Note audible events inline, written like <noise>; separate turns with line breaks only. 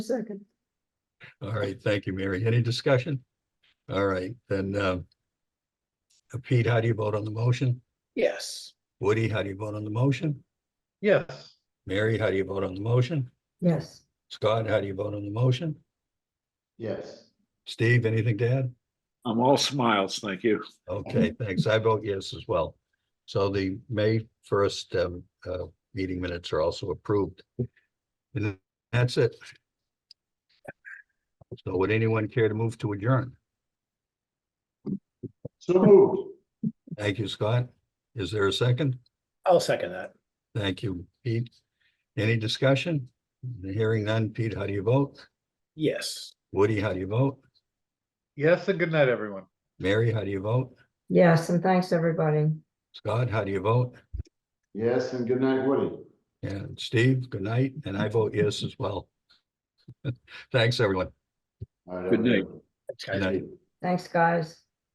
Second.
All right, thank you, Mary. Any discussion? All right, then, uh, Pete, how do you vote on the motion?
Yes.
Woody, how do you vote on the motion?
Yes.
Mary, how do you vote on the motion?
Yes,
Scott, how do you vote on the motion?
Yes.
Steve, anything to add?
I'm all smiles, thank you.
Okay, thanks. I vote yes as well. So the May first, um, uh, meeting minutes are also approved. And that's it. So would anyone care to move to adjourn?
So moved.
Thank you, Scott. Is there a second?
I'll second that.
Thank you, Pete. Any discussion? Hearing none. Pete, how do you vote?
Yes.
Woody, how do you vote?
Yes, and good night, everyone.
Mary, how do you vote?
yes, and thanks, everybody.
Scott, how do you vote?
Yes, and good night, Woody.
And Steve, good night, and I vote yes as well. <laughs> Thanks, everyone.
All right,
Good
have a
night.
one.
Good night.
Thanks, guys.